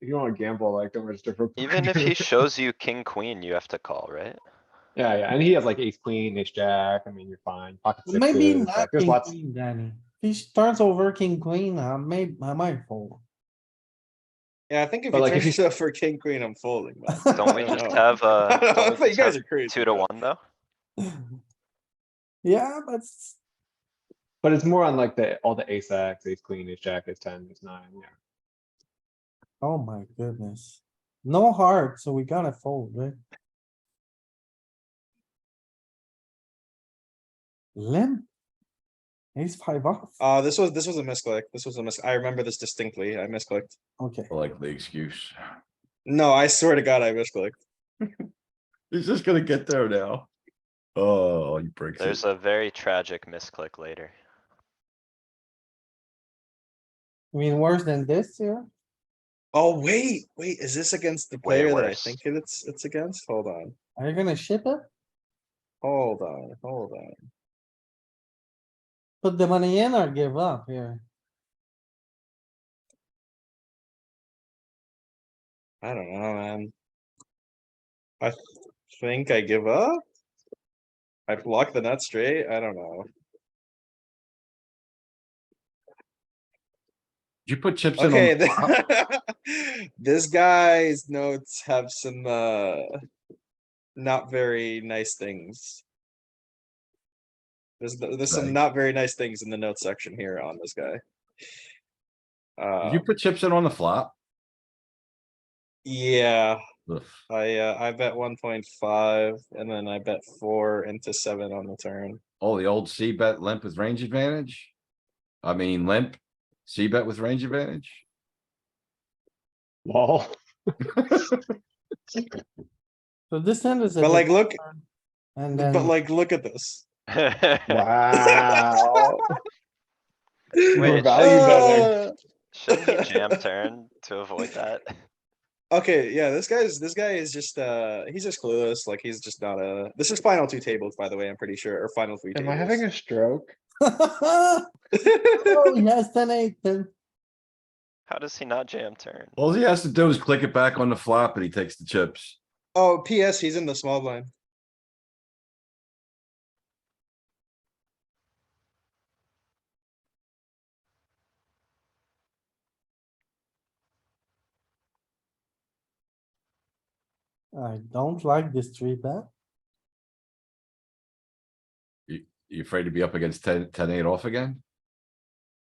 you don't wanna gamble like that much different. Even if he shows you king, queen, you have to call, right? Yeah, yeah, and he has like ace queen, ace jack, I mean, you're fine, pocket Maybe sixes, like, not there's king lots, queen, Danny. He turns over king queen, I may, I might fold. Yeah, I think if But you like, like if you- if stuff for king queen, I'm folding. man. Don't we I don't just know. have, uh, I don't know, don't we you just guys have are crazy. two to one though? Yeah, but it's- but it's more on like the, all the ace X, ace queen, ace jack, ace ten, ace nine, yeah. oh my goodness. No heart, so we gotta fold, right? Limp. Ace five off, Uh, this was, this was a misclick. This was a mis, I remember this distinctly. I misclicked. okay. I like the excuse. No, I swear to God, I misclicked. He's just gonna get there now. Oh, he breaks There's it. a very tragic misclick later. I mean, worse than this here, Oh, wait, wait, is this against the Way player that I worse. think it- it's, it's against? Hold on, are you gonna ship it? hold on, hold on. Put the money in or give up here? I don't know, man. I th- think I give up. I block the nut straight. I don't know. Did you put chips in on Okay, the th- flop? this guy's notes have some uh not very nice things. There's th- there's some Right. not very nice things in the notes section here on this guy. Uh, Did you put chips in on the flop? yeah, Ugh. I uh, I bet one point five and then I bet four into seven on the turn. Oh, the old C bet limp with range advantage? I mean limp, C bet with range advantage? Lol. So this end is. a But like, big look, turn, And then. but like, look at this. Wow. value Wait, betting. Uh, Shouldn't he jam turn to avoid that? Okay, yeah, this guy's this guy is just uh he's just clueless, like he's just not a this is final two tables, by the way, I'm pretty sure, or final three Am I having tables. a stroke? Oh, yes, Oh, ten eight, then. How does he not jam turn? All he has to do is click it back on the flop and he takes the chips. Oh, PS, he's in the small blind. I don't like this three bet. You afraid to be up against 10 10 8 off again?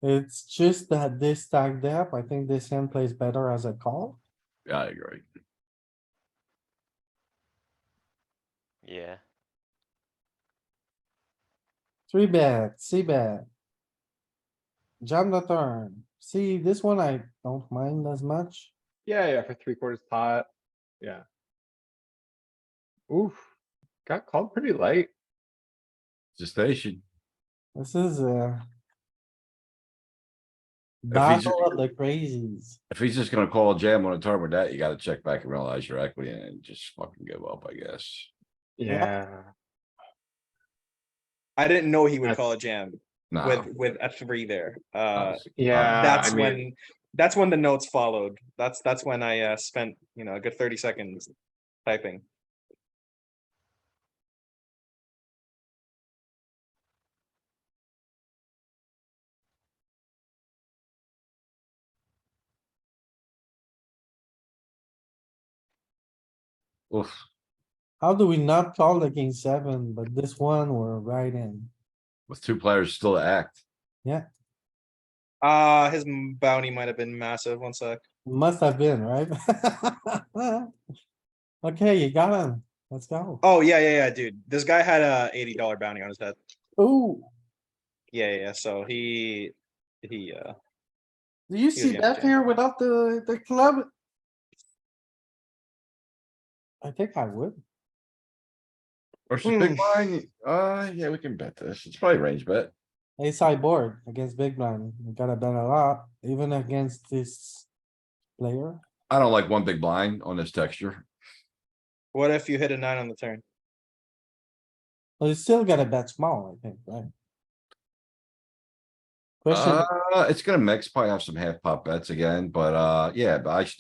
It's just that this stacked up, I think this hand plays better as a call. Yeah, I agree. Yeah, Three bet, C bet. Jam the turn. See, this one I don't mind as much. Yeah, yeah, for three quarters pot, yeah. Oof, got called pretty light. Just they should, This is a he's- battle of the crazies. if he's just gonna call a jam on a turn with that, you gotta check back and realize your equity and just fucking give up, I guess. Yeah, I didn't know he would That's- Oh. call a jam Nah. with with a three there. Uh obviously. yeah. that's I mean, when that's when the notes followed. That's that's when I uh spent, you know, a good thirty seconds typing. Oof. How do we not call the king seven, but this one we're right in? with two players still to act. Uh his m- bounty might have been massive. One sec. Must have been, right? Okay, you got him. Let's go. Oh yeah, yeah, yeah, dude. This guy had a eighty dollar bounty on his head. Ooh. Yeah, yeah, yeah, so he he uh Do you see yeah, that yeah. here without the, the club? I think I would. Or some big blind, uh, yeah, we can bet this. It's probably range bet. Ace high board against big blind. You gotta bet a lot, even against this player. I don't like one big blind on this texture. what if you hit a nine on the turn? But you still gotta bet small, I think, right? Question Uh, it's gonna mix, probably have some half pot bets again, but, uh, yeah, but I should